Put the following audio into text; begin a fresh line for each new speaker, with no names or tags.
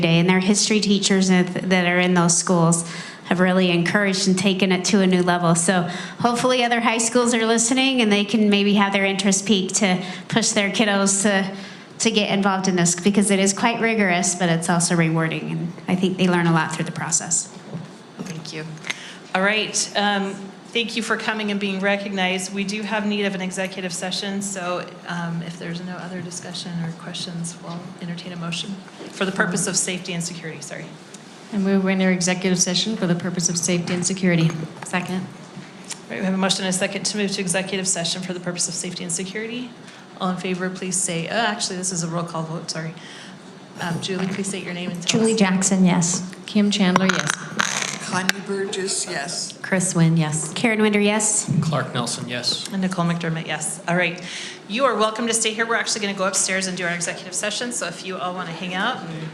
Day, and their history teachers that that are in those schools have really encouraged and taken it to a new level. So hopefully, other high schools are listening, and they can maybe have their interest peak to push their kiddos to to get involved in this because it is quite rigorous, but it's also rewarding, and I think they learn a lot through the process.
Thank you. All right. um, Thank you for coming and being recognized. We do have need of an executive session, so um, if there's no other discussion or questions, we'll entertain a motion for the purpose of safety and security, sorry.
And move into executive session for the purpose of safety and security. Second.
All right, we have a motion and a second to move to executive session for the purpose of safety and security. All in favor, please say, oh, actually, this is a roll call vote, sorry. Um, Julie, please state your name and tell us.
Julie Jackson, yes. Kim Chandler, yes.
Connie Burgess, yes.
Chris Nguyen, yes.
Karen Winder, yes.
Clark Nelson, yes.
And Nicole McDermott, yes. All right. You are welcome to stay here. We're actually going to go upstairs and do our executive session, so if you all want to hang out and